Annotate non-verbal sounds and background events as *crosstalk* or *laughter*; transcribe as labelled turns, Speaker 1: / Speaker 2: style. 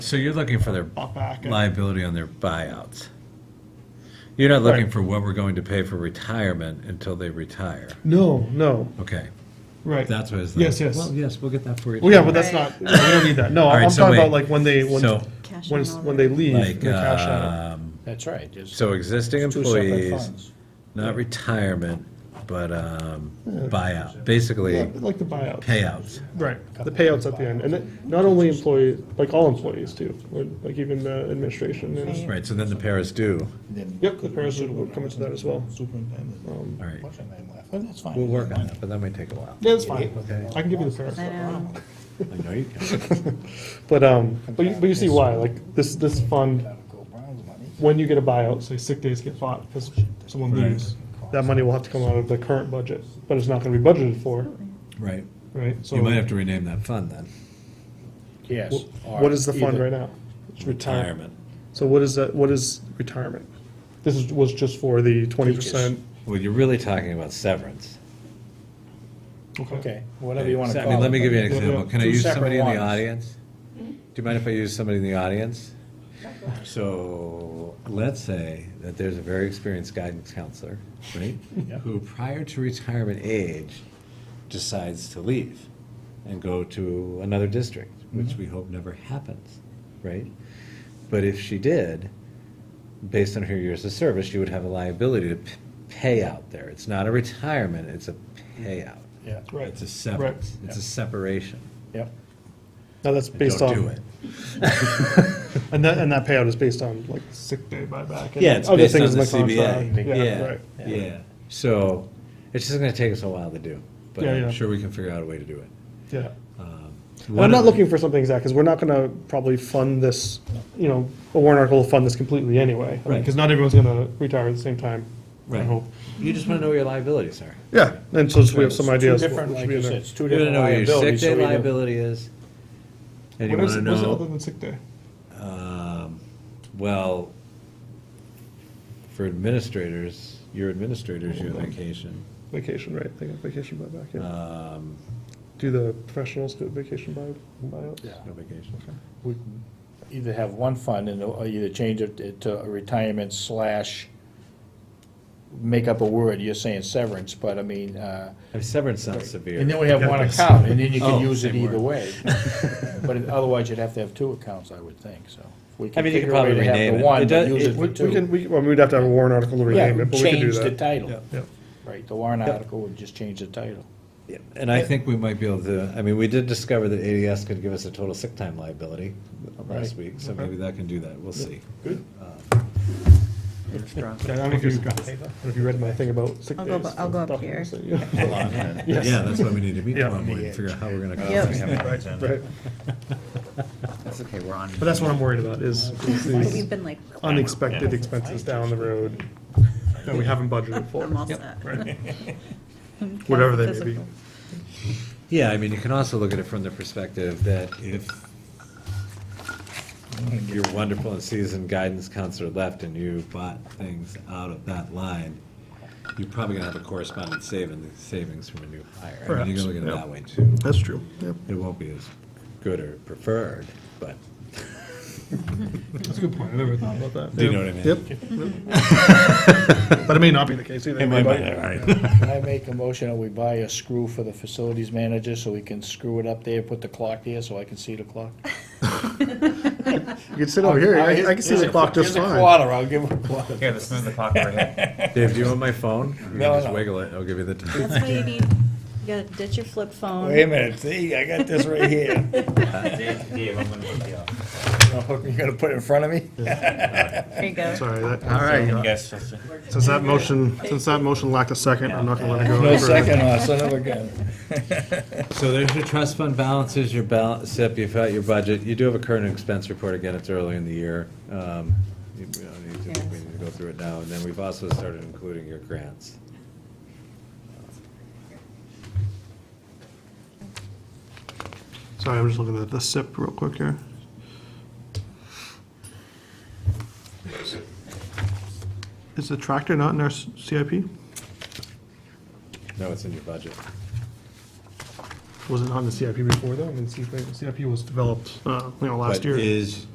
Speaker 1: So you're looking for their
Speaker 2: bought back. and-
Speaker 1: liability on their buyouts. You're not looking
Speaker 2: Right.
Speaker 1: for what we're going to pay for retirement until they retire.
Speaker 2: No, no,
Speaker 1: Okay,
Speaker 2: right.
Speaker 1: that's what it's.
Speaker 2: Yes, yes.
Speaker 1: Well, yes, we'll get that for you.
Speaker 2: Well, yeah, but that's not,
Speaker 3: Right.
Speaker 2: we don't need that. No,
Speaker 1: All right,
Speaker 2: I'm
Speaker 1: so
Speaker 2: talking about
Speaker 1: wait.
Speaker 2: like when they, when,
Speaker 1: So,
Speaker 3: Cash
Speaker 2: when,
Speaker 3: in
Speaker 2: s-
Speaker 3: all
Speaker 2: when
Speaker 3: the-
Speaker 2: they leave, they
Speaker 1: like,
Speaker 2: cash out.
Speaker 1: um,
Speaker 4: That's right. There's
Speaker 1: so existing
Speaker 4: two separate
Speaker 1: employees,
Speaker 4: funds.
Speaker 1: not retirement, but, um, buyout, basically
Speaker 2: Yeah, Like the buyout.
Speaker 1: payouts.
Speaker 2: Right, the payouts at the end, and then, not only employees, like all employees too, or like even the administration and,
Speaker 1: Right, so then the paras do.
Speaker 4: Then-
Speaker 2: yep, the parachute will come into that as well.
Speaker 4: Superintendent.
Speaker 1: All right,
Speaker 4: What's her name left? Well, that's fine.
Speaker 1: we'll work on that, but that might take a while.
Speaker 2: Yeah, that's fine,
Speaker 1: Okay.
Speaker 2: I can give you the
Speaker 3: I
Speaker 2: parachute.
Speaker 3: know.
Speaker 1: I know you can.
Speaker 2: But, um, but you, but you see why, like, this, this fund,
Speaker 4: Go Browns money.
Speaker 2: when you get a buyout, say sick days get fought because someone
Speaker 1: Right.
Speaker 2: leaves, that money will have to come out of the current budget, but it's not gonna be budgeted for,
Speaker 1: Right,
Speaker 2: right? So
Speaker 1: you might have to rename that fund then,
Speaker 4: Yes.
Speaker 2: wh- What is the fund right now? It's
Speaker 1: retirement.
Speaker 2: So what is that, what is retirement? This is, was just for the twenty percent.
Speaker 1: Well, you're really talking about severance.
Speaker 4: Okay, whatever you want
Speaker 1: So,
Speaker 4: to
Speaker 1: I
Speaker 4: call it.
Speaker 1: mean, let me give you an
Speaker 2: Yeah,
Speaker 1: example.
Speaker 2: yeah.
Speaker 1: Can I
Speaker 4: Two
Speaker 1: use
Speaker 4: separate
Speaker 1: somebody in the
Speaker 4: ones.
Speaker 1: audience? Do you mind if I use somebody in the audience? So, let's say that there's a very experienced guidance counselor, right?
Speaker 4: Yeah.
Speaker 1: Who prior to retirement age decides to leave and go to another district,
Speaker 4: Mm-hmm.
Speaker 1: which we hope never happens, right? But if she did, based on her years of service, she would have a liability to p- pay out there. It's not a retirement, it's a payout.
Speaker 4: Yeah,
Speaker 2: Right.
Speaker 1: It's a severance,
Speaker 4: Right.
Speaker 1: it's a separation.
Speaker 4: yep.
Speaker 2: Now that's
Speaker 1: And
Speaker 2: based
Speaker 1: Don't do
Speaker 2: on, *laughs*
Speaker 1: it.
Speaker 2: and that, and that payout is based on like sick day buyback. and
Speaker 1: Yeah, it's
Speaker 2: other
Speaker 1: based on
Speaker 2: things
Speaker 1: the
Speaker 2: in contract.
Speaker 1: CBA.
Speaker 2: Yeah, right.
Speaker 1: Yeah, yeah. So it's just gonna take us a while to do, but
Speaker 2: Yeah,
Speaker 1: I'm
Speaker 2: yeah.
Speaker 1: sure we can figure out a way to do it.
Speaker 2: Yeah. And
Speaker 1: One
Speaker 2: I'm not
Speaker 1: of-
Speaker 2: looking for something exact, because we're not gonna probably fund this, you know, a warrant article will fund this completely anyway.
Speaker 1: Right.
Speaker 2: Because not everyone's gonna retire at the same time, I
Speaker 1: Right.
Speaker 2: hope.
Speaker 1: You just wanna know where your liabilities are.
Speaker 2: Yeah, and so just we have some
Speaker 4: It's two
Speaker 2: ideas.
Speaker 4: different,
Speaker 2: what should
Speaker 4: like
Speaker 2: be in
Speaker 4: you
Speaker 2: there.
Speaker 4: said, it's two
Speaker 1: You wanna
Speaker 4: different
Speaker 1: know where your sick
Speaker 4: liabilities.
Speaker 1: day
Speaker 4: so we don't-
Speaker 1: liability is. And you
Speaker 2: What is-
Speaker 1: wanna
Speaker 2: what is it other
Speaker 1: know,
Speaker 2: than sick day?
Speaker 1: um, well, for administrators, your administrators, your vacation.
Speaker 2: Vacation, right, they got vacation buyback, yeah.
Speaker 1: Um,
Speaker 2: Do the professionals get vacation buy, buyouts?
Speaker 4: Yeah.
Speaker 1: No vacation.
Speaker 4: we can Either have one fund and or either change it uh, to a retirement slash, make up a word, you're saying severance, but I mean, uh,
Speaker 1: And Severance sounds severe.
Speaker 4: And then we have one account, and then you
Speaker 1: Oh,
Speaker 4: can use it
Speaker 1: same
Speaker 4: either
Speaker 1: word. *laughs*
Speaker 4: way. But otherwise, you'd have to have two accounts, I would think, so. if we
Speaker 1: I mean, you could
Speaker 4: figure a way
Speaker 1: probably
Speaker 4: to have the
Speaker 1: rename it.
Speaker 4: one,
Speaker 1: It
Speaker 4: but
Speaker 1: does-
Speaker 4: use
Speaker 1: it-
Speaker 4: it for
Speaker 2: We
Speaker 4: two.
Speaker 2: we can, we, well, we'd have to have a warrant article to
Speaker 4: Yeah,
Speaker 2: rename it, but we could do
Speaker 4: change the
Speaker 2: that.
Speaker 4: title.
Speaker 2: Yeah.
Speaker 4: Right, the warrant
Speaker 2: Yeah.
Speaker 4: article would just change the title.
Speaker 1: Yeah, And I think we might be able to, I mean, we did discover that ADS could give us a total sick time liability last
Speaker 4: Right.
Speaker 1: week, so maybe that can do that, we'll see. Uh,
Speaker 2: Yeah, I don't know if you, I don't know if you read my thing about sick
Speaker 3: I'll
Speaker 2: days.
Speaker 3: go bu- I'll go up
Speaker 2: documents
Speaker 3: here.
Speaker 2: that you-
Speaker 1: *laughs*
Speaker 2: *laughs*
Speaker 1: Yeah, that's why we need to meet
Speaker 2: Yeah.
Speaker 1: tomorrow morning, and figure out how we're gonna.
Speaker 3: Yep.
Speaker 1: cover it.
Speaker 2: Right,
Speaker 1: *laughs*
Speaker 2: right.
Speaker 5: That's okay, we're on.
Speaker 2: But that's what I'm
Speaker 4: *laughs*
Speaker 2: worried
Speaker 1: *laughs*
Speaker 2: about, is is
Speaker 3: We've
Speaker 2: these
Speaker 3: been like,
Speaker 2: *laughs* unexpected expenses down the road that we haven't budgeted for.
Speaker 3: I'm all set.
Speaker 2: Right.
Speaker 3: *laughs*
Speaker 2: Whatever they may be.
Speaker 3: Physical.
Speaker 1: Yeah, I mean, you can also look at it from the perspective that if your wonderful and seasoned guidance counselor left and you bought things out of that line, you're probably gonna have a corresponding saving, savings from a new hire. I mean, You
Speaker 2: Perhaps,
Speaker 1: can look at it
Speaker 2: yeah.
Speaker 1: that way too.
Speaker 2: That's true, yeah.
Speaker 1: It won't be as good or preferred, but,
Speaker 2: That's a good point, I never thought about that.
Speaker 1: do you know what I mean?
Speaker 2: *laughs* But it may not be the case either.
Speaker 1: It might, be, all right.
Speaker 4: Can I make a motion that we buy a screw for the facilities manager, so we can screw it up there, put the clock there, so I can see the clock?
Speaker 2: You can sit over Oh, here, I I can see the clock just
Speaker 4: Here's a
Speaker 2: fine.
Speaker 4: quarter, I'll give him a quarter.
Speaker 5: Here, let's move the clock over here.
Speaker 1: Dave, do you want my phone? You can
Speaker 4: No,
Speaker 1: just
Speaker 4: no.
Speaker 1: wiggle it, I'll give you the time.
Speaker 3: That's why you need, you gotta ditch your flip
Speaker 4: *laughs* Wait a
Speaker 3: phone.
Speaker 4: minute, see, I got this
Speaker 3: *laughs*
Speaker 4: right here.
Speaker 5: Uh, Dave, Dave, I'm gonna hook you up.
Speaker 4: *laughs* You're gonna put it in front of me? *laughs*
Speaker 3: There you go.
Speaker 2: Sorry,
Speaker 5: So
Speaker 2: that, uh,
Speaker 5: You guys just-
Speaker 2: since that motion, since that motion lacked a second, I'm not gonna let it go.
Speaker 4: No
Speaker 2: any further.
Speaker 4: second, uh, son of a gun. *laughs*
Speaker 1: So there's your trust fund balances, your balance, SIP, you've got your budget, you do have a current expense report, again, it's early in the year. Um, you- We don't need to, we
Speaker 3: Yes.
Speaker 1: need to go through it now, and then we've also started including your grants.
Speaker 2: Sorry, I'm just looking at the SIP real quick here. Is the tractor not in our s- CIP?
Speaker 1: No, it's in your budget.
Speaker 2: Was it on the CIP before though? I mean, CIP was developed, uh, you know, last
Speaker 1: But
Speaker 2: year.
Speaker 1: is